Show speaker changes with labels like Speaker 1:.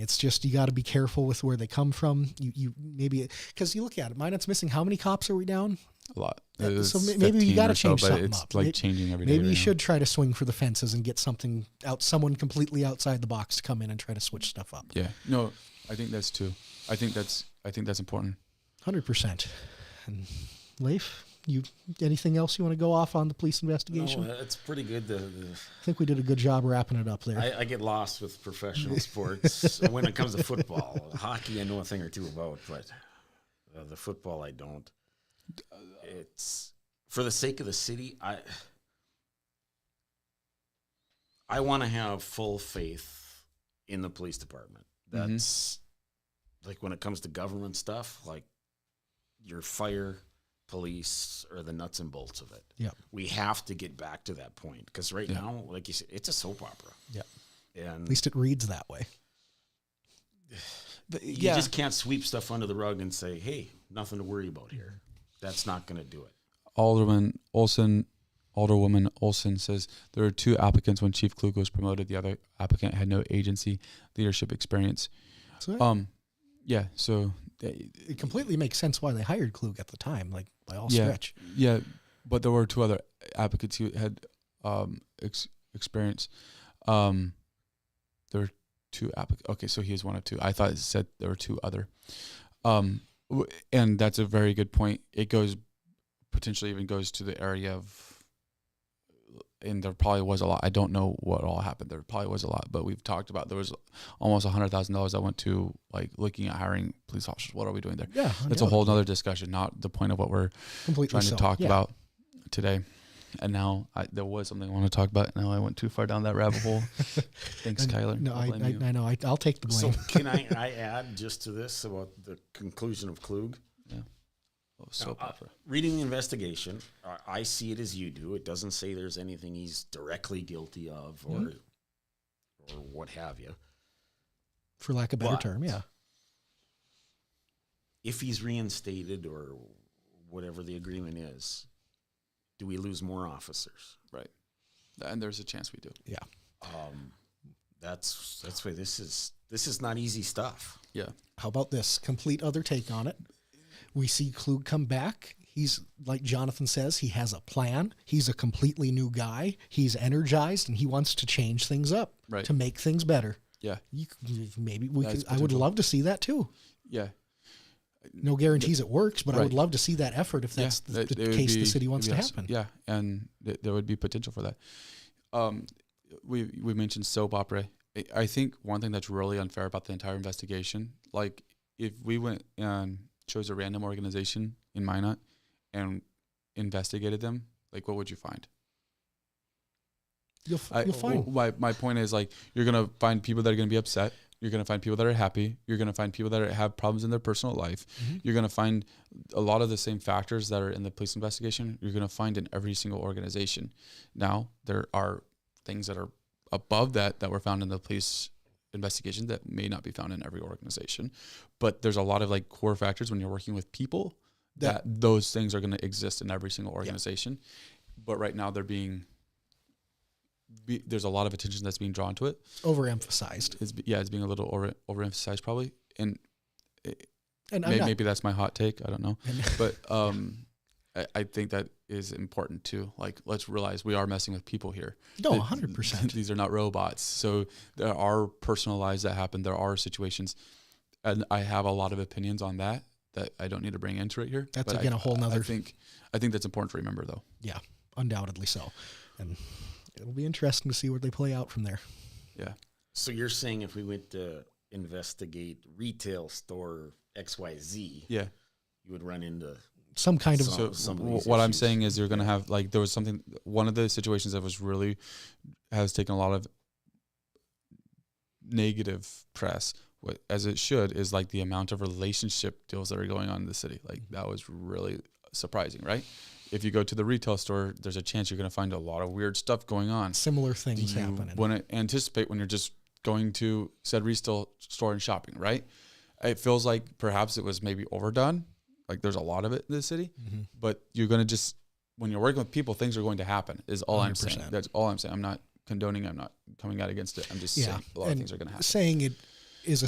Speaker 1: It's just you got to be careful with where they come from. You you maybe because you look at it, Minot's missing. How many cops are we down?
Speaker 2: a lot.
Speaker 1: Yeah,
Speaker 2: It
Speaker 1: so
Speaker 2: was
Speaker 1: may- maybe you
Speaker 2: 15
Speaker 1: gotta
Speaker 2: or so,
Speaker 1: change
Speaker 2: but
Speaker 1: something
Speaker 2: it's
Speaker 1: up.
Speaker 2: like
Speaker 1: May-
Speaker 2: changing every day.
Speaker 1: Maybe you
Speaker 2: right now.
Speaker 1: should try to swing for the fences and get something out, someone completely outside the box to come in and try to switch stuff up.
Speaker 2: Yeah. No, I think that's too. I think that's. I think that's important.
Speaker 1: Hundred percent. And Leif, you anything else you want to go off on the police investigation?
Speaker 3: No, Oh, it's pretty good. The, the,
Speaker 1: I think we did a good job wrapping it up there.
Speaker 3: I, I get lost with professional sports when it comes to football. Hockey, I know a thing or two about, but uh, the football, I don't. It's for the sake of the city. I I want to have full faith in the police department.
Speaker 2: Mhm.
Speaker 3: That's like when it comes to government stuff, like your fire, police, or the nuts and bolts of it.
Speaker 1: Yep.
Speaker 3: we have to get back to that point because right
Speaker 2: Yeah.
Speaker 3: now, like you said, it's a soap opera.
Speaker 1: Yep.
Speaker 3: and
Speaker 1: At least it reads that way.
Speaker 2: But,
Speaker 3: you
Speaker 2: yeah.
Speaker 3: just can't sweep stuff under the rug and say, "Hey, nothing to worry about here." That's not going to do it.
Speaker 2: Alderman Olson, Alderwoman Olson says there are two applicants when Chief Klug was promoted. The other applicant had no agency leadership experience.
Speaker 1: So
Speaker 2: Um, yeah. So uh,
Speaker 1: it completely makes sense why they hired Klug at the time, like by all
Speaker 2: Yeah.
Speaker 1: stretch.
Speaker 2: yeah, but there were two other applicants who had um ex- experience. Um, there were two applicants. Okay, so he is one of two. I thought it said there were two other. Um, w- and that's a very good point. It goes potentially even goes to the area of and there probably was a lot. I don't know what all happened. There probably was a lot, but we've talked about there was almost a hundred thousand dollars that went to like looking at hiring police officers. What are we doing there?
Speaker 1: Yeah,
Speaker 2: That's a whole nother discussion, not the point of what we're
Speaker 1: completely
Speaker 2: trying
Speaker 1: so.
Speaker 2: to talk
Speaker 1: Yeah.
Speaker 2: about today. And now I, there was something I want to talk about. Now I went too far down that rabbit hole. Thanks,
Speaker 1: And-
Speaker 2: Kyler.
Speaker 1: No,
Speaker 2: I'll
Speaker 1: I,
Speaker 2: blame
Speaker 1: I,
Speaker 2: you.
Speaker 1: I know. I, I'll take the
Speaker 3: So
Speaker 1: blame.
Speaker 3: can I, I add just to this about the conclusion of Klug?
Speaker 2: Oh, soap
Speaker 3: No, I-
Speaker 2: opera.
Speaker 3: Reading the investigation, I- I see it as you do. It doesn't say there's anything he's directly guilty of or or what have you.
Speaker 1: for lack of a better
Speaker 3: But-
Speaker 1: term. Yeah.
Speaker 3: If he's reinstated or whatever the agreement is, do we lose more officers?
Speaker 2: Right. And there's a chance we do.
Speaker 1: Yeah.
Speaker 3: Um, that's that's why this is this is not easy stuff.
Speaker 2: Yeah.
Speaker 1: How about this complete other take on it? We see Klug come back. He's like Jonathan says, he has a plan. He's a completely new guy. He's energized and he wants to change things up
Speaker 2: Right.
Speaker 1: to make things better.
Speaker 2: Yeah.
Speaker 1: You, c- maybe we
Speaker 2: That
Speaker 1: could.
Speaker 2: is
Speaker 1: I would
Speaker 2: potential.
Speaker 1: love to see that too.
Speaker 2: Yeah.
Speaker 1: No guarantees it works, but I would
Speaker 2: Right.
Speaker 1: love to see that effort if that's
Speaker 2: yeah,
Speaker 1: the,
Speaker 2: that- it
Speaker 1: the
Speaker 2: would
Speaker 1: case the
Speaker 2: be-
Speaker 1: city wants to
Speaker 2: yes,
Speaker 1: happen.
Speaker 2: Yeah, and th- there would be potential for that. Um, we we mentioned soap opera. I- I think one thing that's really unfair about the entire investigation, like if we went and chose a random organization in Minot and investigated them, like what would you find?
Speaker 1: You'll, f-
Speaker 2: I,
Speaker 1: you'll find.
Speaker 2: My, my point is like you're gonna find people that are gonna be upset. You're gonna find people that are happy. You're gonna find people that are, have problems in their personal life.
Speaker 1: Mm-hmm.
Speaker 2: You're gonna find a lot of the same factors that are in the police investigation. You're gonna find in every single organization. Now there are things that are above that that were found in the police investigation that may not be found in every organization, but there's a lot of like core factors when you're working with people that,
Speaker 1: That-
Speaker 2: those things are gonna exist in every single organization. But right now they're being be, there's a lot of attention that's being drawn to it.
Speaker 1: overemphasized.
Speaker 2: It's be- yeah, it's being a little over overemphasized probably, and
Speaker 1: And I'm
Speaker 2: may,
Speaker 1: not,
Speaker 2: maybe that's my hot take. I don't know, but um, I, I think that is important too. Like, let's realize we are messing with people here.
Speaker 1: no,
Speaker 2: Th-
Speaker 1: 100%.
Speaker 2: These are not robots, so there are personal lives that happen. There are situations, and I have a lot of opinions on that that I don't need to bring into it here.
Speaker 1: That's
Speaker 2: but I-
Speaker 1: again a whole
Speaker 2: I
Speaker 1: nother-
Speaker 2: think I think that's important to remember though.
Speaker 1: Yeah, undoubtedly so. And it'll be interesting to see where they play out from there.
Speaker 2: Yeah,
Speaker 3: So you're saying if we went to investigate retail store XYZ,
Speaker 2: yeah.
Speaker 3: you would run into
Speaker 1: Some kind of
Speaker 3: So-
Speaker 2: so
Speaker 3: some of
Speaker 2: wh-
Speaker 3: these
Speaker 2: what I'm
Speaker 3: issues.
Speaker 2: saying is you're going to have like there was something one of the situations that was really has taken a lot of negative press wh- as it should is like the amount of relationship deals that are going on in the city like that was really surprising right if you go to the retail store there's a chance you're going to find a lot of weird stuff going on
Speaker 1: similar things
Speaker 2: you
Speaker 1: happening.
Speaker 2: wouldn't anticipate when you're just going to said retail store and shopping, right? It feels like perhaps it was maybe overdone. Like there's a lot of it in the city,
Speaker 1: Mm-hmm.
Speaker 2: but you're gonna just when you're working with people, things are going to happen. Is all i am saying.
Speaker 1: 100%.
Speaker 2: That's all I'm saying. I'm not condoning. I'm not coming out against it. I'm just
Speaker 1: Yeah,
Speaker 2: saying a lot of
Speaker 1: and
Speaker 2: things are gonna happen.
Speaker 1: saying it is a